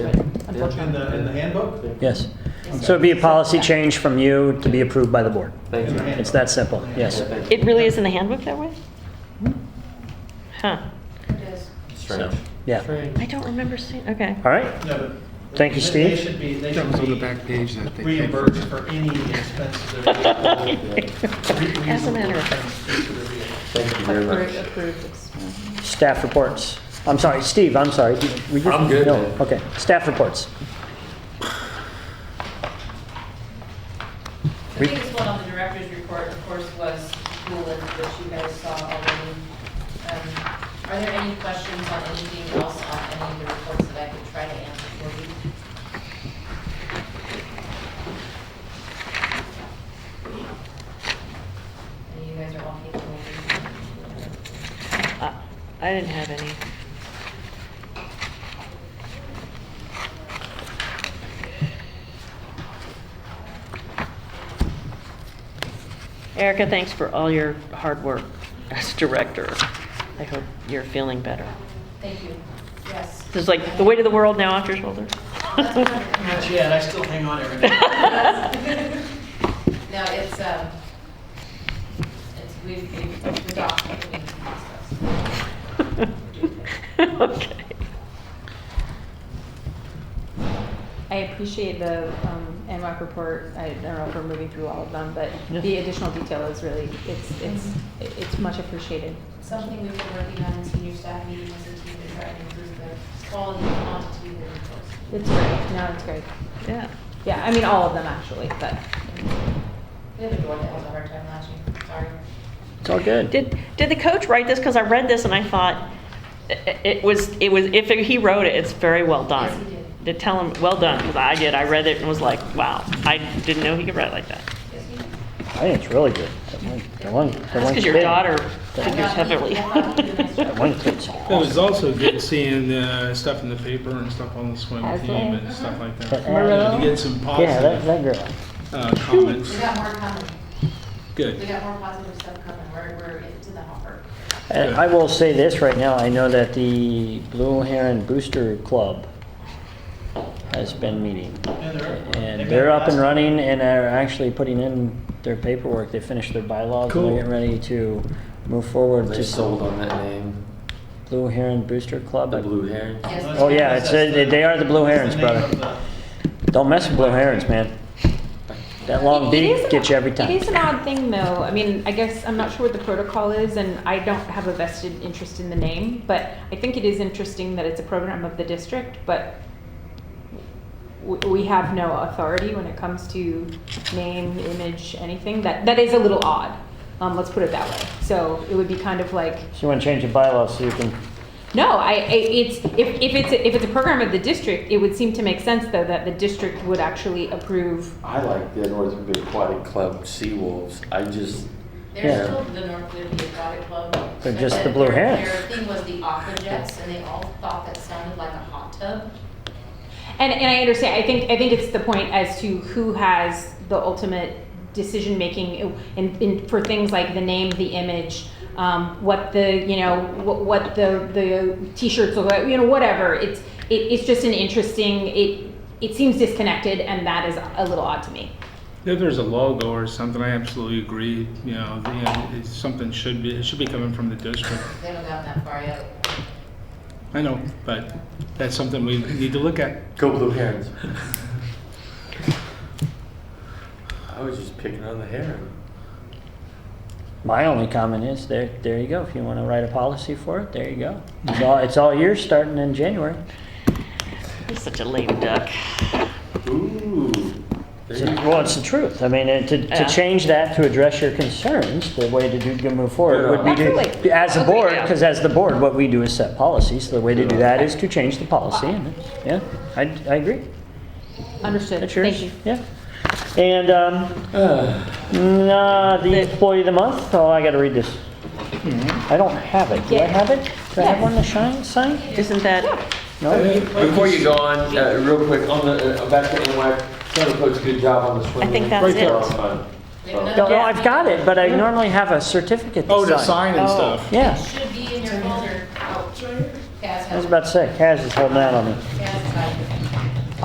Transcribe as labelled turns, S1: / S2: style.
S1: What, in the, in the handbook?
S2: Yes. So it'd be a policy change from you to be approved by the board.
S3: Thank
S1: In
S3: you.
S1: the handbook.
S2: It's that simple, yes.
S3: Thank you.
S4: It really is in the handbook that way? Huh.
S3: Strange.
S2: So, Yeah.
S4: I don't remember seeing, okay.
S2: All right,
S1: No, but.
S2: Thank you,
S1: they- They
S2: Steve.
S1: should be, they
S5: That
S1: should
S5: was on the
S1: be
S5: back page that they. came from.
S1: reimbursed for any expenses that are.
S4: As a matter of fact.
S1: fact.
S3: Thank you very much.
S2: staff reports. I'm sorry, Steve, I'm sorry. Were you-
S3: I'm good,
S2: No,
S3: man.
S2: Okay, staff reports.
S6: The biggest one on the director's report, of course, was the list that you guys saw already. Um, Are there any questions on anything else on any of the reports that I could try to answer for you? And you guys are all capable of it.
S4: Uh, I didn't have any. Erica, thanks for all your hard work as director. I hope you're feeling better.
S6: Thank you. Yes.
S4: There's like the weight of the world now off your shoulders.
S1: Not yet, I still hang on every day.
S6: No, it's, um, it's, we've, we've adopted the process.
S4: Okay.
S7: I appreciate the um, NWAC report. I don't know if we're moving through all of them, but
S4: Yeah.
S7: the additional detail is really, it's, it's, it's much appreciated.
S6: something we've been working on in senior staff meeting as a team to try and improve the quality and quantity of the reports.
S7: It's great. No, it's great.
S4: Yeah.
S7: Yeah, I mean, all of them actually, but
S6: We have a door that has a hard time latching, sorry.
S2: It's all good.
S4: Did, did the coach write this? Because I read this and I thought i- i- it was, it was, if he wrote it, it's very well done.
S6: Yes, he did.
S4: To tell him, well done, because I did. I read it and was like, wow, I didn't know he could write like that.
S6: Yes, we
S2: I think it's really good. That one- that one- that
S4: That's
S2: one
S4: because your
S2: kid-
S4: daughter
S6: I
S4: figures
S6: thought he-
S4: heavily.
S6: I thought he did a nice
S2: That
S6: job.
S2: one kid's
S8: It was
S2: awesome.
S8: also good seeing uh, stuff in the paper and stuff on the swim
S7: As
S8: team
S7: well.
S8: and stuff like that.
S2: Marillo?
S8: You get some
S2: Uh-huh. Yeah, that, that
S8: positive
S2: girl.
S8: uh, comments.
S6: We got more coming, we
S8: Good.
S6: got more positive stuff coming, we're, we're into the hopper.
S2: And I will say this right now, I know that the Blue Heron Booster Club has been meeting.
S1: And they're-
S2: And
S1: they've
S2: they're
S1: got
S2: up and
S1: last-
S2: running and are actually putting in their paperwork. They finished their bylaws and
S8: Cool.
S2: they're getting ready to move forward
S3: They
S2: to
S3: sold on that name,
S2: Blue Heron Booster Club.
S3: the Blue Heron.
S6: Yes,
S1: Well,
S2: Oh, yeah, it's,
S1: that's
S2: they- they are the Blue
S1: that's
S2: Herons,
S1: name
S2: brother.
S1: of the-
S2: Don't mess with blue herons, man. That long
S7: It- it is
S2: beak
S7: an-
S2: gets you every
S7: It
S2: time.
S7: is an odd thing, though. I mean, I guess I'm not sure what the protocol is, and I don't have a vested interest in the name, but I think it is interesting that it's a program of the district, but w- we have no authority when it comes to name, image, anything. That that is a little odd. Um, let's put it that way. So it would be kind of like
S2: So you want to change your bylaws so you can,
S7: no, I, I it's, if, if it's, a- if it's a program of the district, it would seem to make sense, though, that the district would actually approve.
S3: I like the North Bay Aquatic Club Sea Wolves. I just,
S2: Yeah.
S6: There's still the North Liberty Aquatic Club.
S2: They're
S6: but
S2: just the
S6: their-
S2: Blue Herons.
S6: Their thing was the aqua jets, and they all thought that sounded like a hot tub.
S7: And, and I understand, I think, I think it's the point as to who has the ultimate decision-making in, in, for things like the name, the image, um, what the, you know, what, what the, the t-shirts look like, you know, whatever. It's, it, it's just an interesting, it, it seems disconnected, and that is a little odd to me.
S8: If there's a logo or something, I absolutely agree. You know, the, you know, it's, something should be it should be coming from the district.
S6: They haven't gotten that far yet.
S8: I know, but that's something we need to look at.
S3: go Blue Herons. I was just picking on the heron.
S2: my only comment is, there, there you go. If you want to write a policy for it, there you go. It's all, it's all yours starting in January.
S4: You're such a lame duck.
S3: Ooh. There
S2: It's
S3: you
S2: a-
S3: go.
S2: Well, it's the truth. I mean, and to,
S4: Yeah.
S2: to change that, to address your concerns, the way to do, to move forward would be
S7: Absolutely.
S2: to, as a
S7: Agreed.
S2: board, because as the board, what we do is set policies. So the way to do that is to change the policy. and- Yeah, I, I agree.
S7: Understood,
S2: That's yours.
S7: thank you.
S2: Yeah. And, um, nah, the employee of the month, oh, I gotta read this. I don't have it. Do I
S7: Yeah.
S2: have it? Do I have
S7: Yeah.
S2: one to shine, sign?
S4: Isn't that?
S2: No?
S3: Before you go on, uh, real quick, on the, uh, back to NY, Santa Claus, good job on the swim.
S4: I think
S3: meet.
S4: that's
S3: Right there
S4: it.
S3: on time.
S6: They
S3: So-
S6: have
S2: Oh. No,
S6: another-
S2: no, I've got it, but I normally have a certificate
S8: Oh, the
S2: to sign.
S8: sign and stuff.
S2: Yeah,
S6: Should be in your folder. Oh, Kaz
S2: I
S6: has
S2: was
S6: it.
S2: about to say, Kaz is holding out on me.
S6: Kaz has it.